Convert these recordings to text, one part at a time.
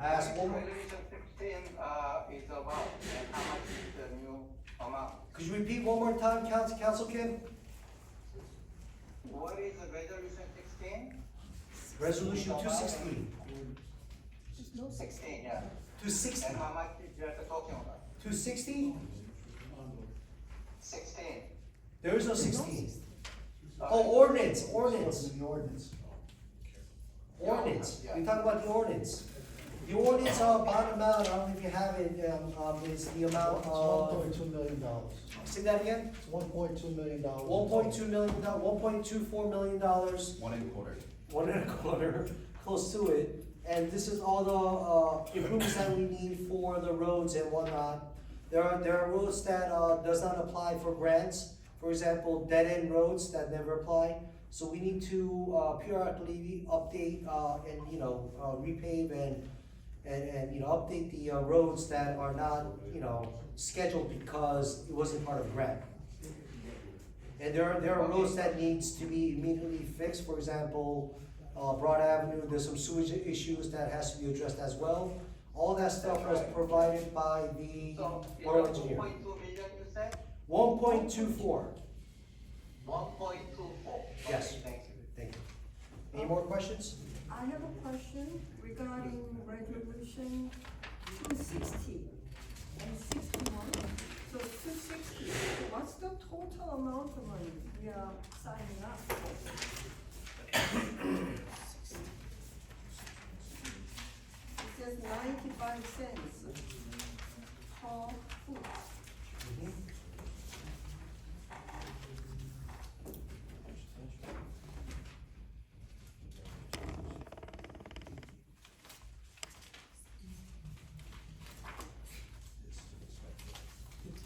I ask one more, Resolution sixteen, uh, is about, and how much is the new amount? could you repeat one more time, Council, Council Kim? What is the resolution sixteen? Resolution two sixteen, Sixteen, yeah. two sixty, And how much is you're talking about? two sixty? Sixteen. There is no sixteen. Okay. Oh, ordinance, ordinance, The ordinance. ordinance, Yeah. we talk about the ordinance. The ordinance, uh, bond amount, I don't think you have it, um, um, is the amount It's one of, point two million dollars. say that again? It's one point two million dollars. One point two million, one point two four million dollars, One and a quarter. one and a quarter, close to it. And this is all the, uh, improvements that we need for the roads and whatnot. There are, there are roads that, uh, does not apply for grants, for example, dead-end roads that never apply. So we need to, uh, periodically update, uh, and, you know, uh, repave and, and, and, you know, update the, uh, roads that are not, you know, scheduled because it wasn't part of grant. And there are, there are roads that needs to be immediately fixed, for example, uh, Broad Avenue, there's some sewage issues that has to be addressed as well. All that stuff was provided by the So, borough it's one engineer. point two million, you said? One point two four, One point two four. Yes. Thank you. thank you. Any more questions? I have a question regarding resolution two sixty and sixty-one. So two sixty, so what's the total amount of money we are signing up for? It says ninety-five cents per foot.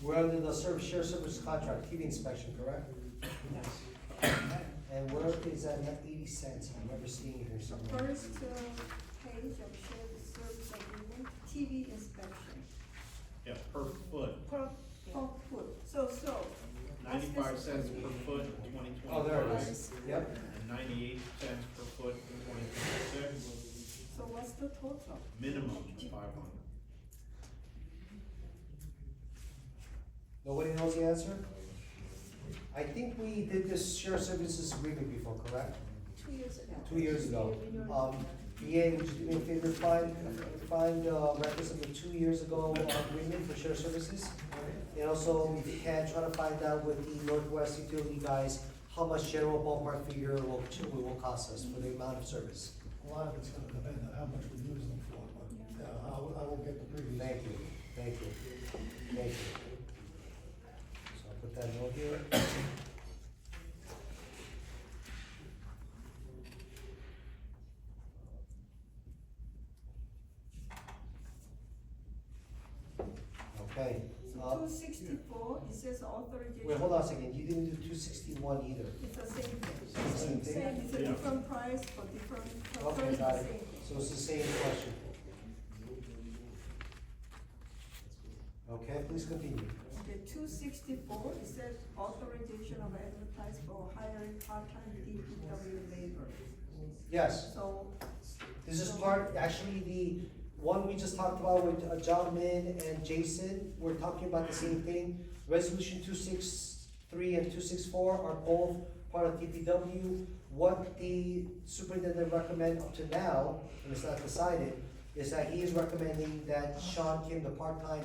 We're under the service, share service contract, heating inspection, correct? And where is that eighty cents? I remember seeing it here somewhere. First uh, page of shared service agreement, TV inspection. Yeah, per foot, Per, per foot, so, so. what's this ninety-five cents per agreement? foot in twenty Oh, there it twenty-five, is, yep. and ninety-eight cents per foot in twenty twenty-six, So what's the total? minimum five hundred. Nobody knows the answer? I think we did this shared services agreement before, correct? Two years ago. Two years ago. Um, BA, would you do me a favor, find, find, uh, records of the two years ago uh, agreement for shared services? And also, if you can, try to find out with the Northwest utility guys, how much general ballpark figure will, will cost us for the amount of service. A lot of it's gonna depend on how much we use them for, but, uh, I will, I will get the previous. Thank you, thank you, thank you. So I'll put that note here. Okay, So uh, two sixty-four, it says authorization. wait, hold on a second, you didn't do two sixty-one either. It's the same Same thing. thing? Same, it's a Yeah. different price for different, for Okay, Oh, the got same it, thing. so it's the same question. Okay, please continue. Okay, two sixty-four, it says authorization of advertise for hiring part-time DPW labor. Yes? So, This is part, actually, the one we just talked about with uh, John Min and Jason, we're talking about the same thing. Resolution two six three and two six four are both part of DPW. What the superintendent recommend up to now, and it's not decided, is that he is recommending that Sean Kim, the part-time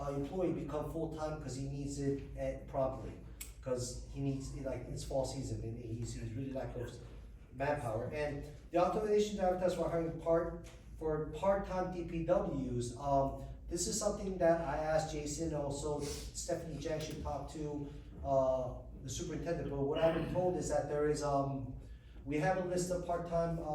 uh, employee, become full-time because he needs it at promptly. Because he needs, like, it's fall season and he's, he's really lack of manpower. And the authorization to advertise for hiring part, for part-time DPWs, um, this is something that I asked Jason, also Stephanie Jang should talk to, uh, the superintendent, but what I've been told is that there is, um, we have a list of part-time, uh,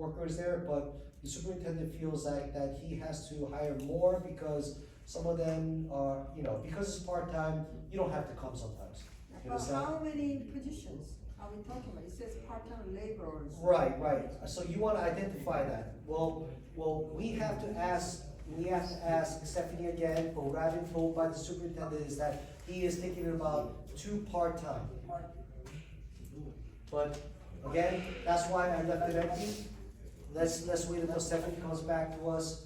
workers there, but the superintendent feels like that he has to hire more because some of them are, you know, because it's part-time, you don't have to come sometimes. You but understand? how many positions are we talking about? It says part-time laborers. Right, right, so you wanna identify that, well, well, we have to ask, we have to ask Stephanie again, but what I've been told by the superintendent is that he is thinking about two part-time. But, again, that's why I left it empty, Let's, let's wait until Stephanie comes back to us